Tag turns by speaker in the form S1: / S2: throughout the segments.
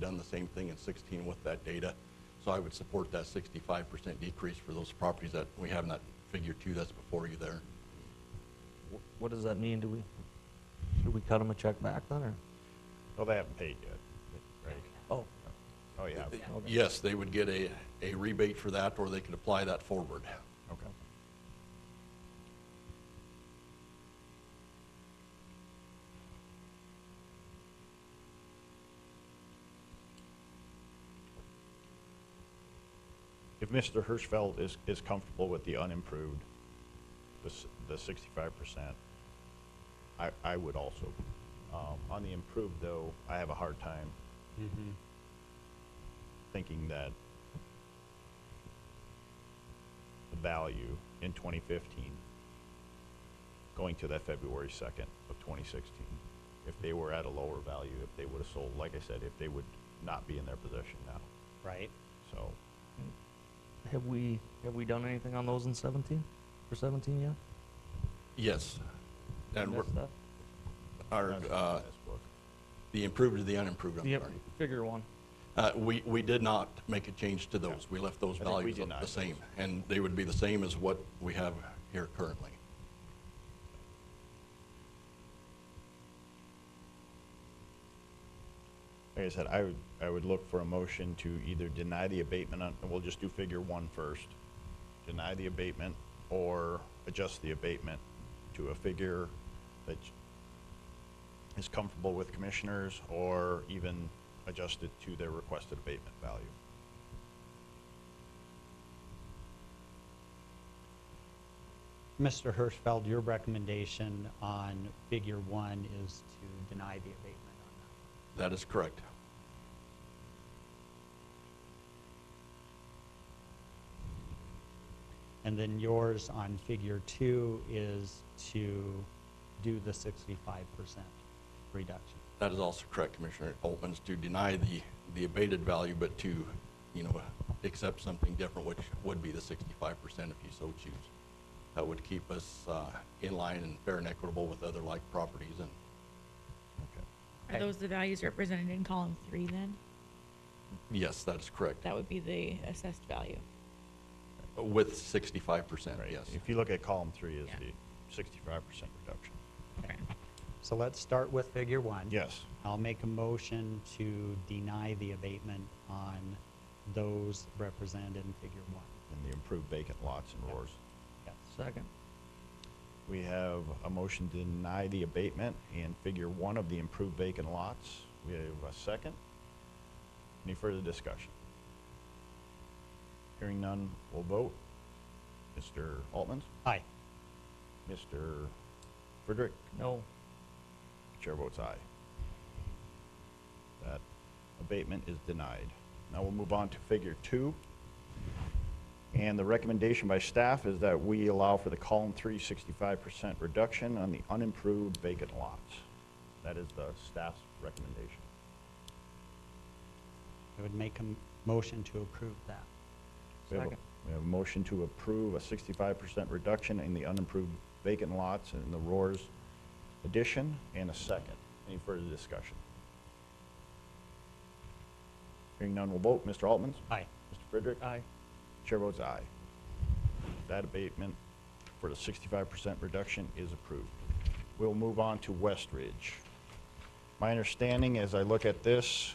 S1: done the same thing in 16 with that data. So I would support that 65% decrease for those properties that we have in that figure two that's before you there.
S2: Wh- What does that mean? Do we, should we cut them a check back then, or?
S3: Well, they haven't paid yet, right?
S2: Oh,
S3: Oh, yeah.
S1: Yes, they would get a, a rebate for that, or they could apply that forward.
S3: Okay. If Mr. Hirschfeld is, is comfortable with the unimproved, the, s- the sixty-five percent, I, I would also. Um, on the improved though, I have a hard time thinking that the value in 2015 going to that February 2nd of 2016. If they were at a lower value, if they would have sold, like I said, if they would not be in their possession now.
S4: Right.
S3: So
S2: have we, have we done anything on those in seventeen, for seventeen yet?
S1: Yes. And we're-
S2: Missed that?
S1: our,
S3: that's
S1: uh,
S3: in this book.
S1: the improved or the unimproved, I'm
S2: Yep,
S1: sorry.
S2: figure one.
S1: Uh, We, we did not make a change to those. We left those
S3: I think we
S1: values
S3: did
S1: the
S3: not.
S1: same, and they would be the same as what we have here currently.
S3: Like I said, I would, I would look for a motion to either deny the abatement, on- and we'll just do figure one first. Deny the abatement or adjust the abatement to a figure that is comfortable with commissioners or even adjust it to their requested abatement value.
S4: Mr. Hirschfeld, your recommendation on figure one is to deny the abatement on that.
S1: That is correct.
S4: And then yours on figure two is to do the sixty-five percent reduction.
S1: That is also correct, Commissioner Altman's, to deny the, the abated value, but to, you know, accept something different, which would be the sixty-five percent if you so choose. That would keep us uh, in line and fair and equitable with other like properties and
S3: Okay.
S5: Are those the values represented in column three then?
S1: Yes, that is correct.
S5: That would be the assessed value.
S1: With sixty-five percent,
S3: Right,
S1: yes.
S3: if you look at column three is
S5: Yeah.
S3: the sixty-five percent reduction.
S4: So let's start with figure one.
S3: Yes,
S4: I'll make a motion to deny the abatement on those represented in figure one.
S3: and the improved vacant lots and roars.
S4: Yes.
S2: Second.
S3: We have a motion to deny the abatement in figure one of the improved vacant lots. We have a second. Any further discussion? Hearing none, we'll vote. Mr. Altman,
S4: Aye.
S3: Mr. Friedrich,
S2: No,
S3: chair votes aye. That abatement is denied. Now we'll move on to figure two. And the recommendation by staff is that we allow for the column three sixty-five percent reduction on the unimproved vacant lots. That is the staff's recommendation.
S4: I would make a m- motion to approve that.
S3: We have a-
S2: Second.
S3: We have a motion to approve a sixty-five percent reduction in the unimproved vacant lots in the Roars addition, and a second. Any further discussion? Hearing none, we'll vote. Mr. Altman?
S4: Aye.
S3: Mr. Frederick?
S2: aye.
S3: Chair votes aye. That abatement for the sixty-five percent reduction is approved. We'll move on to West Ridge. My understanding, as I look at this,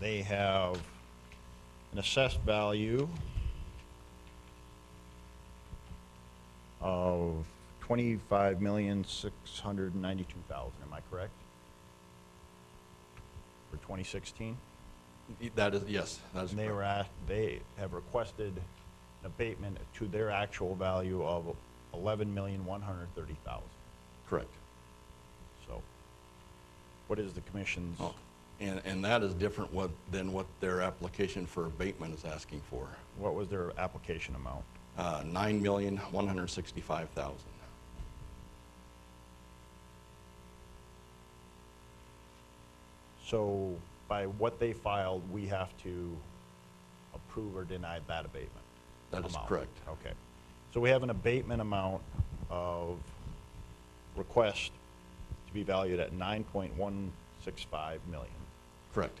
S3: they have an assessed value of twenty-five million, six hundred and ninety-two thousand, am I correct? For twenty sixteen?
S1: That is, yes, that is
S3: And they were
S1: correct.
S3: asked, they have requested an abatement to their actual value of eleven million, one hundred thirty thousand,
S1: Correct.
S3: so. What is the commission's,
S1: Oh, And, and that is different what, than what their application for abatement is asking for.
S3: what was their application amount?
S1: Uh, nine million, one hundred and sixty-five thousand.
S3: So by what they filed, we have to approve or deny that abatement?
S1: That is
S3: amount.
S1: correct.
S3: Okay. So we have an abatement amount of request to be valued at nine point one six five million.
S1: Correct.